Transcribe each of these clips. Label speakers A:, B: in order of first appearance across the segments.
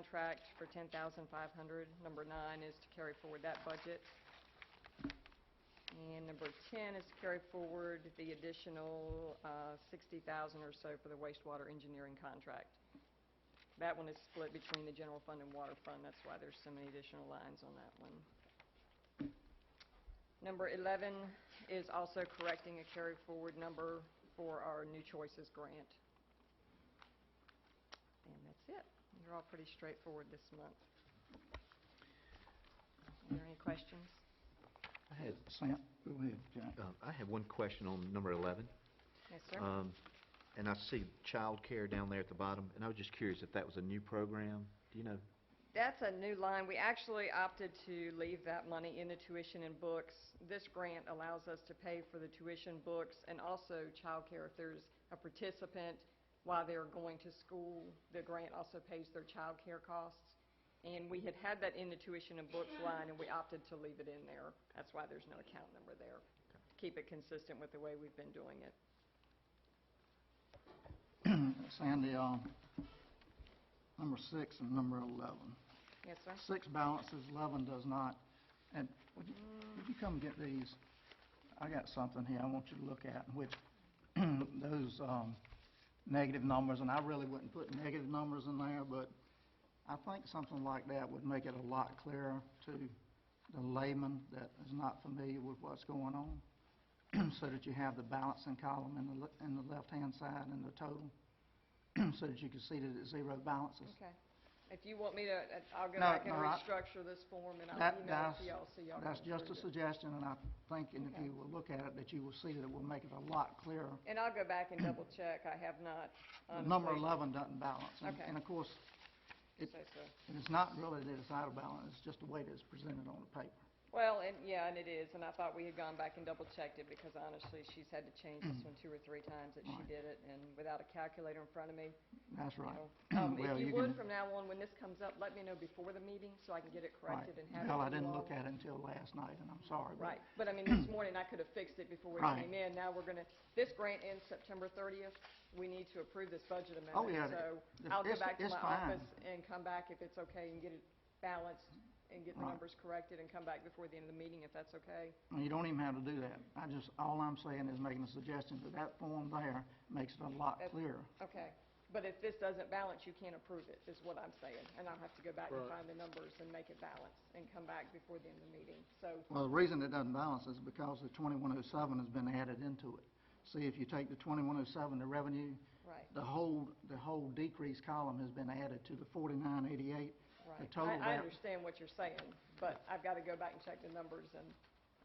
A: contract for ten thousand five hundred. Number nine is to carry forward that budget. And number ten is to carry forward the additional uh, sixty thousand or so for the wastewater engineering contract. That one is split between the general fund and water fund, that's why there's so many additional lines on that one. Number 11 is also correcting a carry-forward number for our New Choices grant. And that's it. They're all pretty straightforward this month. Are there any questions?
B: I had,
C: Sam, go ahead, Jack.
B: um, I have one question on number 11.
A: Yes, sir?
B: Um, And I see childcare down there at the bottom, and I was just curious if that was a new program, do you know?
A: That's a new line. We actually opted to leave that money in the tuition and books. This grant allows us to pay for the tuition, books, and also childcare. If there's a participant while they're going to school, the grant also pays their childcare costs. And we had had that in the tuition and books line, and we opted to leave it in there. That's why there's no account number there. Keep it consistent with the way we've been doing it.
C: Sandy, um, number six and number 11.
A: Yes, sir?
C: Six balances, 11 does not. And would you,
A: Mm,
C: would you come get these? I got something here I want you to look at, in which those um, negative numbers, and I really wouldn't put negative numbers in there, but I think something like that would make it a lot clearer to the layman that is not familiar with what's going on, so that you have the balancing column in the, le- in the left-hand side and the total, so that you can see that it's zero balances.
A: Okay. If you want me to, uh, I'll go
C: No,
A: back and
C: no, I-
A: restructure this form, and I'll
C: That,
A: email it to
C: that's,
A: y'all, so y'all can
C: that's just a
A: approve it.
C: suggestion, and I think, and if
A: Okay.
C: you will look at it, that you will see that it will make it a lot clearer.
A: And I'll go back and double check, I have not,
C: The
A: honestly.
C: Number 11 doesn't balance. and-
A: Okay.
C: And of course, it-
A: So, so-
C: and it's not really that it's out of balance, it's just the way that it's presented on the paper.
A: Well, and, yeah, and it is, and I thought we had gone back and double checked it, because honestly, she's had to change this one two or three times that she
C: Mm. Right.
A: did it, and without a calculator in front of me.
C: That's
A: you
C: right.
A: know. Um,
C: Well,
A: If you
C: you
A: would,
C: can-
A: from now on, when this comes up, let me know before the meeting, so I can get it
C: Right.
A: corrected and have it
C: Well, I
A: to you
C: didn't
A: all.
C: look at it until last night, and I'm sorry. but-
A: Right, but I mean, this morning I could have fixed it before we
C: Right.
A: came in. Now we're going to, this grant ends September 30th. We need to approve this budget amendment.
C: yeah,
A: So
C: Oh, it-
A: I'll go
C: it's-
A: back to
C: it's
A: my
C: fine.
A: office and come back if it's okay and get it balanced and get the
C: Right.
A: numbers corrected and come back before the end of the meeting if that's okay.
C: And You don't even have to do that. I just, all I'm saying is making a suggestion that that form there makes it a lot
A: That's-
C: clearer.
A: Okay. But if this doesn't balance, you can't approve it, is what I'm saying. And I'll have to go back and
D: Right.
A: find the numbers and make it balance and come back before the end of the meeting. So,
C: Well, the reason it doesn't balance is because the 2107 has been added into it. See, if you take the 2107, the revenue,
A: right,
C: the whole, the whole decrease column has been added to the 4988. The
A: right.
C: total
A: I I
C: val-
A: understand what you're saying, but I've got to go back and check the numbers and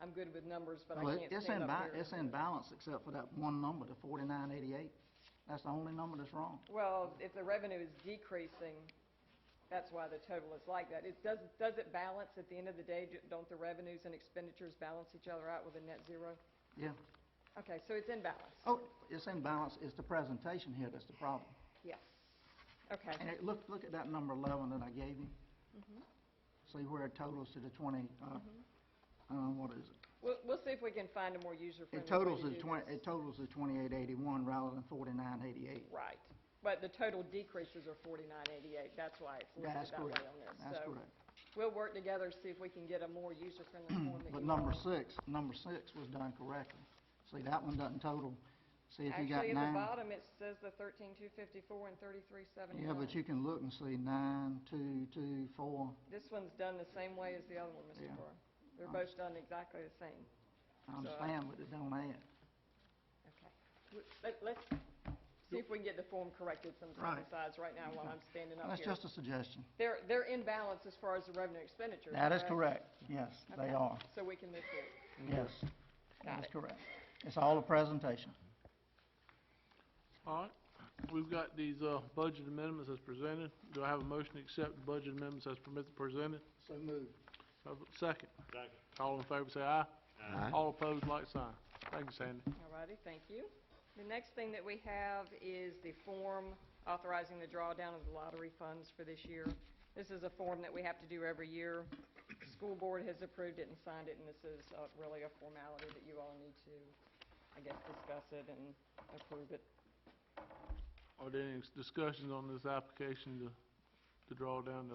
A: I'm good with numbers, but I
C: Well,
A: can't
C: it's
A: stand
C: in
A: up
C: ba-
A: here.
C: It's in balance except for that one number, the 4988. That's the only number that's wrong.
A: Well, if the revenue is decreasing, that's why the total is like that. It does, does it balance at the end of the day? Do- Don't the revenues and expenditures balance each other out with a net zero?
C: Yeah.
A: Okay, so it's in balance.
C: Oh, it's in balance, it's the presentation here that's the problem.
A: Yes. Okay, Mm-hmm.
C: And it, look, look at that number 11 that I gave you. See where it totals to the 20, uh, uh, what is it?
A: we'll, we'll see if we can find a more user-friendly way
C: It totals
A: to
C: is
A: do
C: twenty,
A: this.
C: it totals is twenty-eight eighty-one rather than forty-nine eighty-eight.
A: Right, but the total decreases are forty-nine eighty-eight, that's why it's
C: That's
A: listed that way
C: correct,
A: on this.
C: that's
A: So
C: correct.
A: We'll work together, see if we can get a more user-friendly form that you
C: But number
A: all-
C: six, number six was done correctly. See, that one doesn't total, see if you got
A: Actually, at the
C: nine.
A: bottom, it says the thirteen-two fifty-four and thirty-three seventy-one.
C: Yeah, but you can look and see nine, two, two, four,
A: This one's done the same way as the other one, Mr.
C: Yeah.
A: Carr. They're both done exactly the same.
C: I
A: So-
C: understand, but it don't add.
A: Okay. W- Let, let's see if we can get the form corrected sometime
C: Right.
A: besides right now while I'm standing up
C: That's
A: oh, here.
C: just a suggestion.
A: They're, they're in balance as far as the revenue expenditure.
C: That is correct, yes,
A: Okay.
C: they are,
A: So we can move forward.
C: yes.
A: Got
C: That is
A: it.
C: correct. It's all a presentation.
D: All right, we've got these uh, budget amendments as presented. Do I have a motion to accept the budget amendments as permitted, presented?
C: So moved.
D: Have a Second. Second. All in favor, say aye.
B: Aye.
D: All opposed, like sign. Thank you, Sandy.
A: All righty, thank you. The next thing that we have is the form authorizing the drawdown of the lottery funds for this year. This is a form that we have to do every year. The School board has approved it and signed it, and this is uh, really a formality that you all need to, I guess, discuss it and approve it.
D: Are there any discussions on this application to to draw down the